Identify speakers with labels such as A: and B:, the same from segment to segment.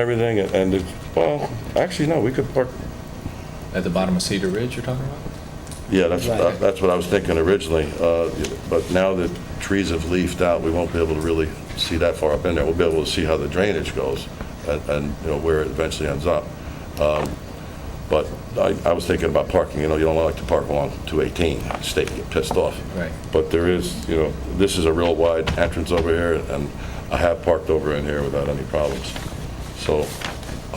A: everything, and- and, it's- well, actually, no, we could park,
B: At the bottom of Cedar Ridge you're talking about?
A: yeah, that's,
B: Right.
A: that's what I was thinking originally, uh, but now that trees have leafed out, we won't be able to really see that far up in there. We'll be able to see how the drainage goes and, and, you know, where it eventually ends up. Um, But I, I was thinking about parking, you know, you don't like to park along 218, state get pissed off.
B: Right.
A: But there is, you know, this is a real wide entrance over here, and I have parked over in here without any problems. So,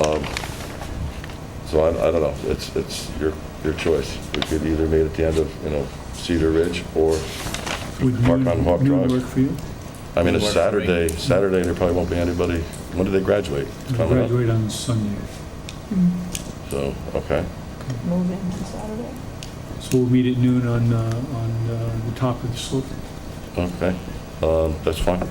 A: um, so I, I don't know, it's, it's your, your choice. We could either meet at the end of, you know, Cedar Ridge, or,
C: Would
A: Park
C: noon-
A: on Hawk
C: noon
A: Drive.
C: work for you?
A: I mean, it's
B: Would work for me.
A: Saturday, Saturday, there probably won't be anybody, when do they graduate?
C: You
A: Coming up.
C: Graduate on Sunday.
A: So, okay,
D: Move in on Saturday.
C: So we'll meet at noon on, uh, on uh, the top of the slope.
A: okay, um, that's fine.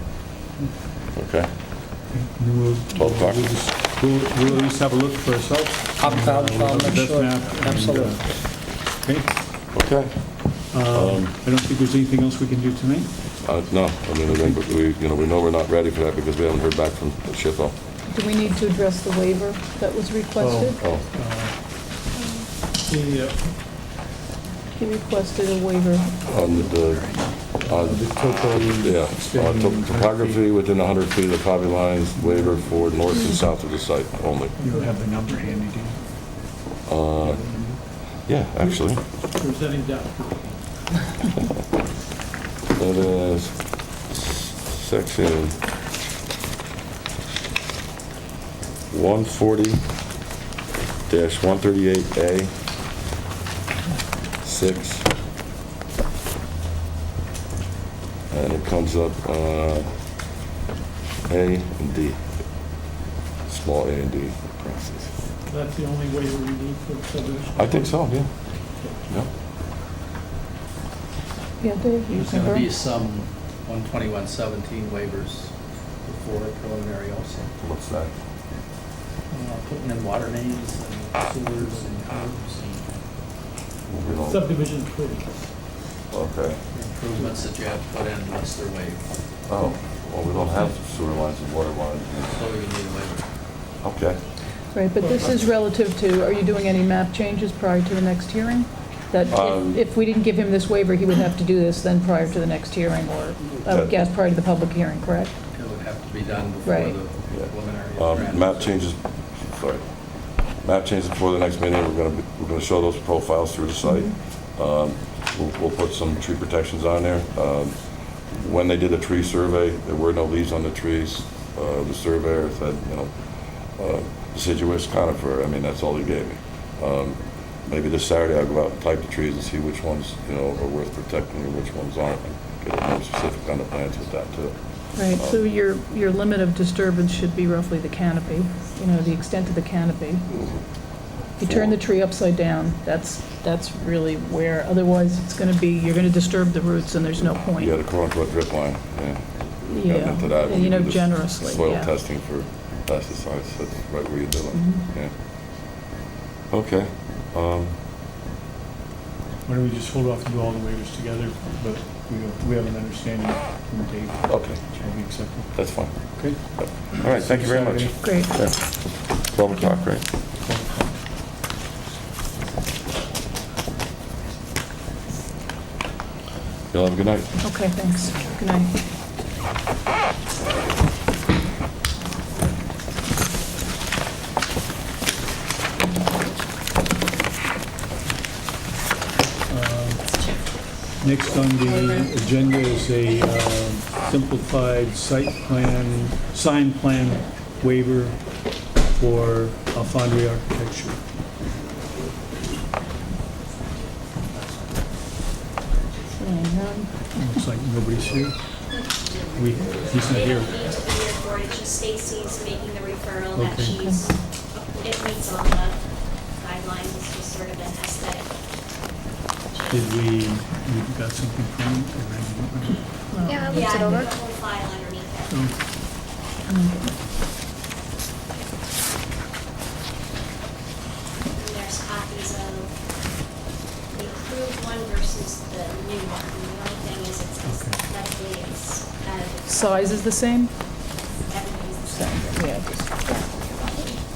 A: Okay,
C: And then we'll-
A: 12 o'clock.
C: We'll, just- we'll we'll at least have a look for ourselves.
E: I'll, I'll, I'll
C: We'll have the
E: make
C: best
E: sure,
C: map and, uh,
E: absolutely.
C: Okay,
A: okay.
C: Um,
A: Um,
C: I don't think there's anything else we can do tonight.
A: Uh, No, I mean, I think that we, you know, we know we're not ready for that because we haven't heard back from Shippo.
D: Do we need to address the waiver that was requested?
A: Oh,
C: Uh,
D: He requested a waiver.
A: on the- Uh, the, on, yeah, on top- topography within 100 feet of the property lines, waiver for north and south of the site only.
C: You don't have the number handy, do you?
A: Uh, Yeah, actually,
C: Presenting that.
A: that is section 140-138A, 6. And it comes up uh, A and D, small a and D process.
F: That's the only way we need for subdivision.
A: I think so, yeah. Yep.
D: Yeah, Dave, you
G: There's going to
D: confirm?
G: be some 12117 waivers before preliminary also.
A: What's that?
G: Uh, Putting in water mains and sewers and curbs and
A: We don't-
F: Subdivision approved.
A: Okay.
G: improvements that you have to put in unless they're waived.
A: Oh, well, we don't have sewer lines and water lines.
G: So you need a waiver.
A: Okay.
D: Right, but this is relative to, are you doing any map changes prior to the next hearing? That if-
A: Um,
D: if we didn't give him this waiver, he would have to do this then prior to the next hearing, or, I would
A: That-
D: guess, prior to the public hearing, correct?
G: It would have to be done before
D: Right.
G: the
A: Yeah.
G: preliminary. is
A: Um,
G: granted.
A: Map changes, sorry. Map changes before the next meeting, we're going to, we're going to show those profiles through the site. Um, We'll, we'll put some tree protections on there. Um, When they did the tree survey, there were no leaves on the trees. Uh, The surveyor said, you know, uh, deciduous conifer, I mean, that's all he gave me. Um, Maybe this Saturday I'll go out and type the trees and see which ones, you know, are worth protecting and which ones aren't. and Get more specific on the plans with that too. Um,
D: Right,
A: Uh,
D: so your, your limit of disturbance should be roughly the canopy, you know, the extent of the canopy. You turn the tree upside down, that's, that's really where, otherwise it's gonna be, you're gonna disturb the roots and there's no point.
A: Yeah, the quote-unquote drip line, yeah. We've gotten
D: Yeah,
A: into that when
D: you know,
A: do this
D: generously,
A: Soil
D: yeah.
A: testing for pesticides, that's right where you do it,
D: Mhm.
A: yeah. Okay, um,
C: Why don't we just hold off and do all the waivers together, but we, we have an understanding from Dave,
A: okay,
C: which will be accepted.
A: that's fine.
C: Okay.
A: All right, thank you very much.
C: Saturday.
D: Great.
A: Yeah. 12 o'clock, right? Y'all have a good night.
D: Okay, thanks. Good night.
C: Um, Next on the agenda is a uh, simplified site plan, sign plan waiver for Alfandria Architecture.
D: Seeing none.
C: Looks like nobody's here. We, he's not here.
H: It's been there for it, it's just Stacy's making the referral that
C: Okay.
H: she's, it meets all the guidelines, it's just sort of an aesthetic.
C: Did we, we got something from him? or I didn't?
H: Yeah, I looked it over. Yeah, I put the whole file underneath it.
C: Oh,
H: And there's copies of the approved one versus the new one. And The only thing is it's,
C: Okay.
H: aesthetically, it's out of.
D: Size is the same?